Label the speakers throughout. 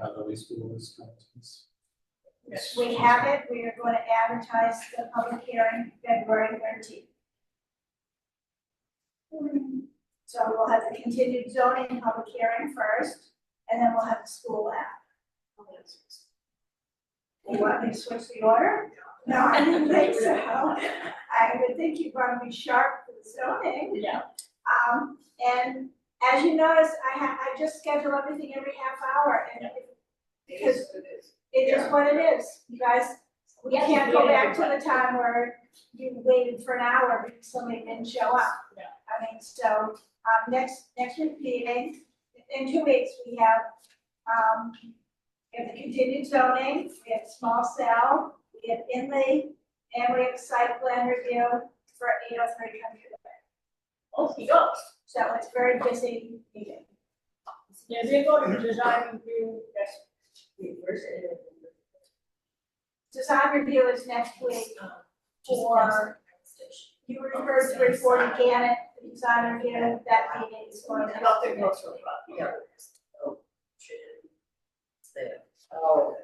Speaker 1: Hathaway School is contents.
Speaker 2: We have it, we are going to advertise the public hearing February thirteenth. So we'll have the continued zoning public hearing first, and then we'll have the school app. You want me to switch the order? No, I didn't think so. I would think you'd want to be sharp for the zoning.
Speaker 3: Yeah.
Speaker 2: Um, and as you notice, I ha I just schedule everything every half hour and because it is what it is, you guys, we
Speaker 3: Yes,
Speaker 2: can't
Speaker 3: we
Speaker 2: go
Speaker 3: did
Speaker 2: back to
Speaker 3: everyone.
Speaker 2: the time where you waited for an hour because somebody didn't show up.
Speaker 3: Yeah.
Speaker 2: I mean, so, um, next, next week meeting, in two weeks, we have, um, we have the continued zoning, we have small cell, we have inlay, and we have site plan review for eight oh three country way.
Speaker 3: Okay, go.
Speaker 2: So it's a very busy meeting.
Speaker 3: Yeah, they go to design review, that's university.
Speaker 2: Design review is next week, or you referred to it for Gannett, the design review, that meeting is going to.
Speaker 3: Nothing else really, but, yeah.
Speaker 4: Oh.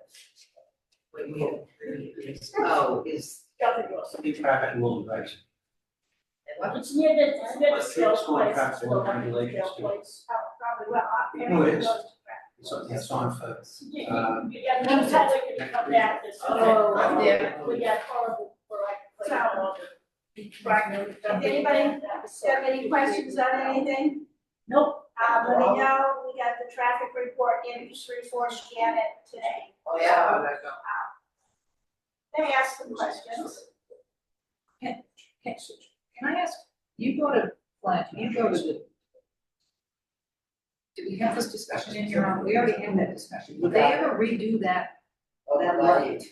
Speaker 4: Wait, we have three years. Oh, is,
Speaker 3: Nothing else.
Speaker 1: Be private and will invite you.
Speaker 3: It's near the, it's near the
Speaker 1: Let's see
Speaker 3: scale
Speaker 1: what's going
Speaker 3: place.
Speaker 1: on, so we'll
Speaker 3: Well,
Speaker 1: be late
Speaker 3: scale
Speaker 1: next week.
Speaker 3: place.
Speaker 2: Oh, probably well, I-
Speaker 1: You know it is.
Speaker 2: everyone goes to prep.
Speaker 1: So that's on for,
Speaker 3: Yeah,
Speaker 1: um,
Speaker 3: you got no time we can come back this.
Speaker 4: Oh,
Speaker 3: summer.
Speaker 4: yeah.
Speaker 3: We got horrible, for like, like,
Speaker 2: So-
Speaker 3: all the- Right.
Speaker 2: anybody Do you have any questions on anything?
Speaker 3: Nope.
Speaker 2: Uh, let me know, we got the traffic report in three four Gannett today. Uh,
Speaker 4: oh, yeah.
Speaker 2: They asked some questions.
Speaker 5: Okay, so Can I ask, you go to, Flint, you go to the. Do we have this discussion in here? We already had that discussion. Would they ever redo that, Oh, that light?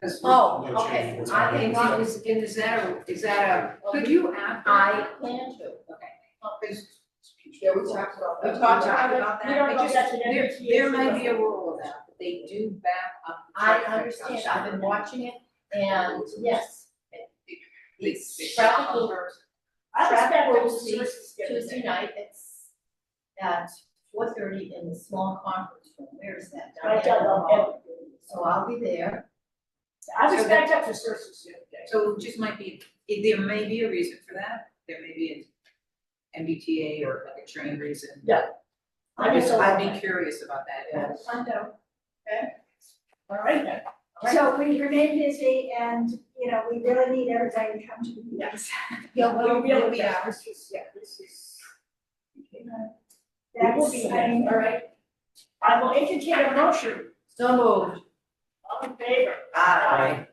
Speaker 5: 'Cause-
Speaker 1: Oh,
Speaker 6: No
Speaker 1: okay.
Speaker 6: change was
Speaker 1: I
Speaker 6: made.
Speaker 1: think-
Speaker 5: Well, is, and is that a, is that a, could you act?
Speaker 4: I plan to.
Speaker 5: Okay.
Speaker 4: Yeah, we talked about
Speaker 5: We
Speaker 4: that.
Speaker 5: talked about
Speaker 3: We don't
Speaker 5: that,
Speaker 3: go
Speaker 5: I just,
Speaker 3: back to that
Speaker 5: there,
Speaker 3: fifty
Speaker 5: there
Speaker 3: years
Speaker 5: might be
Speaker 3: ago.
Speaker 5: a rule of that, but they do back up. the
Speaker 4: I
Speaker 5: traffic
Speaker 4: understand,
Speaker 5: on
Speaker 4: I've been
Speaker 5: Saturday.
Speaker 4: watching it and yes.
Speaker 5: They-
Speaker 4: It's
Speaker 5: they-
Speaker 4: traffic over
Speaker 3: I respect
Speaker 4: Traffic
Speaker 3: those
Speaker 4: rules
Speaker 3: resources the other
Speaker 4: Tuesday
Speaker 3: day.
Speaker 4: night, it's at four thirty in the small conference room, where is that?
Speaker 3: I don't know everything.
Speaker 4: So I'll be there.
Speaker 3: I just backed up to Cersei's the other day.
Speaker 5: So it just might be, it- there may be a reason for that, there may be an MBTA or like a train reason.
Speaker 3: I
Speaker 5: I'd
Speaker 3: just
Speaker 5: be-
Speaker 3: don't
Speaker 5: I'd
Speaker 3: know.
Speaker 5: be curious about that, yeah.
Speaker 2: I know.
Speaker 3: All right then.
Speaker 2: So we remain busy and, you know, we really need everybody to come to the meetings.
Speaker 4: Yeah,
Speaker 3: We'll be able to,
Speaker 4: yeah.
Speaker 3: this is, yeah, this is. We will
Speaker 2: That's,
Speaker 3: be
Speaker 2: I
Speaker 3: there,
Speaker 2: mean,
Speaker 3: all right. I will entertain a motion,
Speaker 4: So moved.
Speaker 3: all in favor?
Speaker 4: Aye.